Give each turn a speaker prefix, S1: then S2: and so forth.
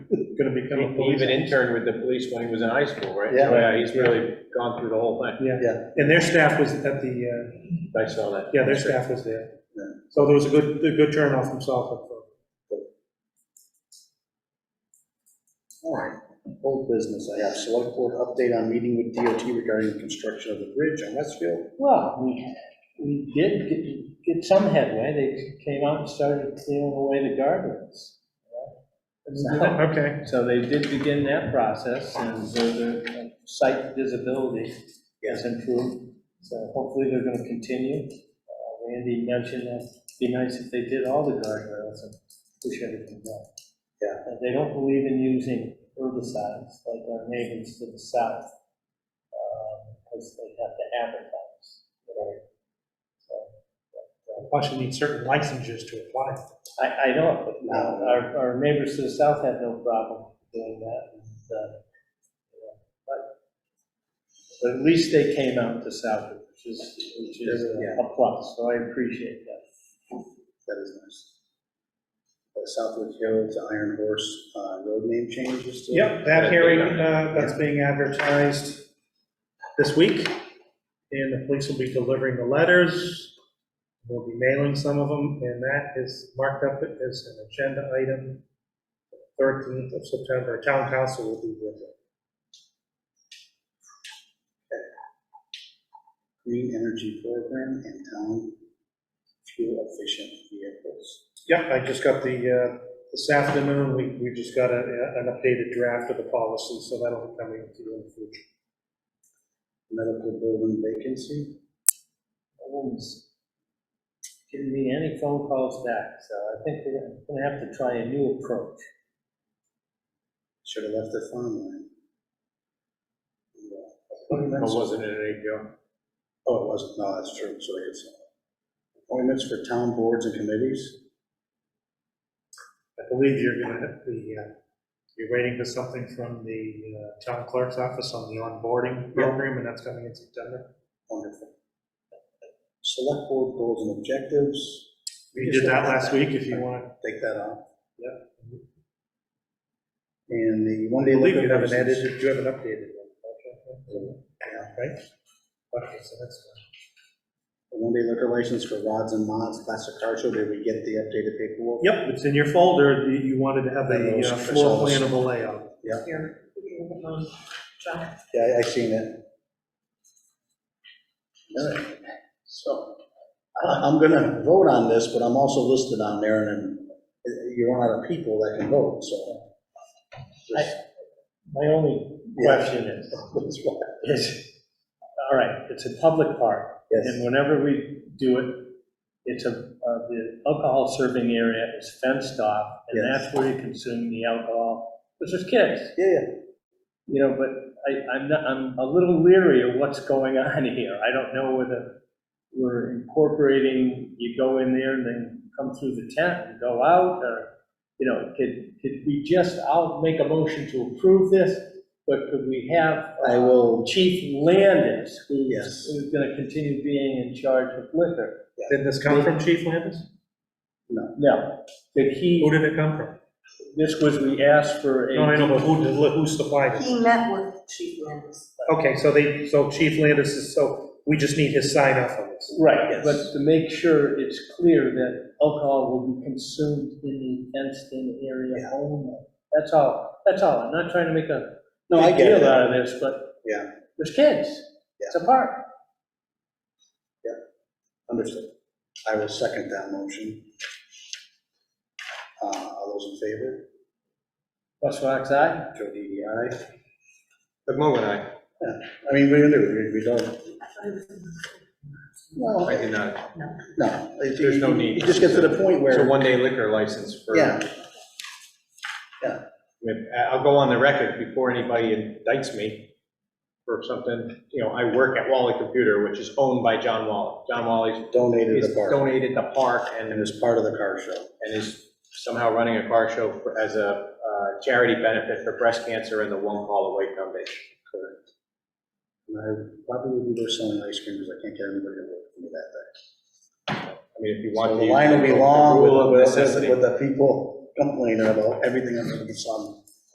S1: gonna become
S2: E-
S1: a
S3: He
S1: police.
S3: even interned with the police when he was in high school, right?
S4: Yeah.
S3: he's really gone through the whole thing.
S4: Yeah.
S1: And their staff was at the, uh,
S3: I saw that.
S1: yeah, their staff was there.
S4: Yeah.
S1: So there was a good, a good turnout from Suffolk.
S4: All right, old business I have, select board update on meeting with DOT regarding the construction of the bridge on Westfield.
S2: Well, we, we did get- get some headway, they came out and started clearing away the gardens. you know?
S1: Okay.
S2: So they did begin that process, and so the site visibility has improved, so hopefully they're gonna continue. Uh, Randy mentioned that it'd be nice if they did all the guardrails and push everything down.
S4: Yeah.
S2: And They don't believe in using herbicides like our neighbors to the south, um, because they have to advertise. Right. So,
S1: Plus you need certain licenses to apply.
S2: I, I know, it, but
S4: No.
S2: our, our neighbors to the south had no problem doing that, and, uh, you know, but, but at least they came out to Southwood, which is, which is
S4: Yeah.
S2: a plus, so I appreciate that.
S4: That is nice. Uh, Southwood Hill to Iron Horse, uh, road name changes to.
S1: Yep, that hearing, uh, that's being advertised this week, and the police will be delivering the letters. We'll be mailing some of them, and that is marked up as an agenda item. 13th of September, town council will be with it.
S4: Green Energy Program and Town Fuel Efficient Vehicles.
S1: Yep, I just got the, uh, this afternoon, we, we just got a, a- an updated draft of the policy, so that'll be coming to you in the future.
S4: Medical building vacancy,
S2: No one's giving me any phone calls back, so I think we're gonna- gonna have to try a new approach.
S4: should have left the farmland.
S3: But
S4: Appointments,
S3: wasn't it any joke?
S4: oh, it wasn't, no, that's true, so it's uh, appointments for town boards and committees.
S1: I believe you're gonna, have the, uh, you're waiting for something from the uh, town clerk's office on the onboarding program, and that's coming in September.
S4: Wonderful. Select board goals and objectives,
S1: We did that last week, if you want.
S4: take that off.
S1: Yep.
S4: And the
S1: I
S4: one day
S1: believe
S4: liquor
S1: you have an
S4: license.
S1: edited, you have an updated one.
S4: Yeah.
S1: Right? Okay, so that's,
S4: The one day liquor license for Rods and Mods Classic Car Show, did we get the updated paperwork?
S1: yep, it's in your folder, you, you wanted to have
S4: And
S1: the
S4: those
S1: uh, floor
S4: results.
S1: plan of the layout.
S5: Here, we can look at mine. John,
S4: Yeah, I, I seen it. All right. So, I, I'm gonna vote on this, but I'm also listed on there, and then uh, you run out of people that can vote, so. Just-
S2: My only
S4: Yeah.
S2: question is,
S4: that's why.
S2: is, all right, it's a public park,
S4: Yes,
S2: And whenever we do it, it's a, uh, the alcohol serving area is fenced off, and
S4: Yes.
S2: that's where you consume the alcohol, which is kids,
S4: yeah, yeah,
S2: you know, but I, I'm not, I'm a little leery of what's going on here. I don't know whether we're incorporating, you go in there and then come through the tent and go out, or, you know, could, could we just, I'll make a motion to approve this, but could we have? uh,
S4: I will,
S2: Chief Landis,
S4: Yes.
S2: who's, who's gonna continue being in charge of liquor.
S1: Did this come from Chief Landis?
S2: No, that
S1: Who
S2: he,
S1: did it come from?
S2: this was, we asked for
S1: No, I
S2: a,
S1: know, but who, did- who supplied it?
S5: he met with Chief Landis.
S1: Okay, so they, so Chief Landis is, so we just need his sign off on this.
S2: right,
S4: Yes.
S2: but to make sure it's clear that alcohol will be consumed in the fenced-in area
S4: Yeah.
S2: only. That's all, that's all. I'm not trying to make a
S4: No, I
S2: big
S4: get
S2: deal
S4: it.
S2: out of this, but
S4: Yeah.
S2: there's kids. It's a park.
S4: understood. I will second that motion. Uh, all those in favor? E
S2: Russ Fox, aye?
S4: Joe Didi, aye.
S3: The moment I,
S4: I mean, we do, we- we don't,
S5: I thought he was in the-
S4: no,
S3: I did not.
S4: no. it-
S3: There's no need.
S4: It just gets to the point
S3: It's a
S4: where,
S3: one-day liquor license for.
S4: Yeah. Yeah.
S3: I mean, I- I'll go on the record before anybody indicts me for something, you know, I work at Wally Computer, which is owned by John Wally. John Wally's
S4: donated the
S3: he's
S4: park,
S3: donated the park and
S4: and it's part of the car show.
S3: and is somehow running a car show for- as a uh, charity benefit for breast cancer and the One Call Away Foundation.
S4: Correct. And I probably will be there selling ice cream, because I can't get anybody to work for me that day.
S3: I mean, if you
S4: So
S3: want.
S4: the line will be long
S3: The rule of
S4: with- with,
S3: necessity.
S4: with the people complaining about everything under the sun.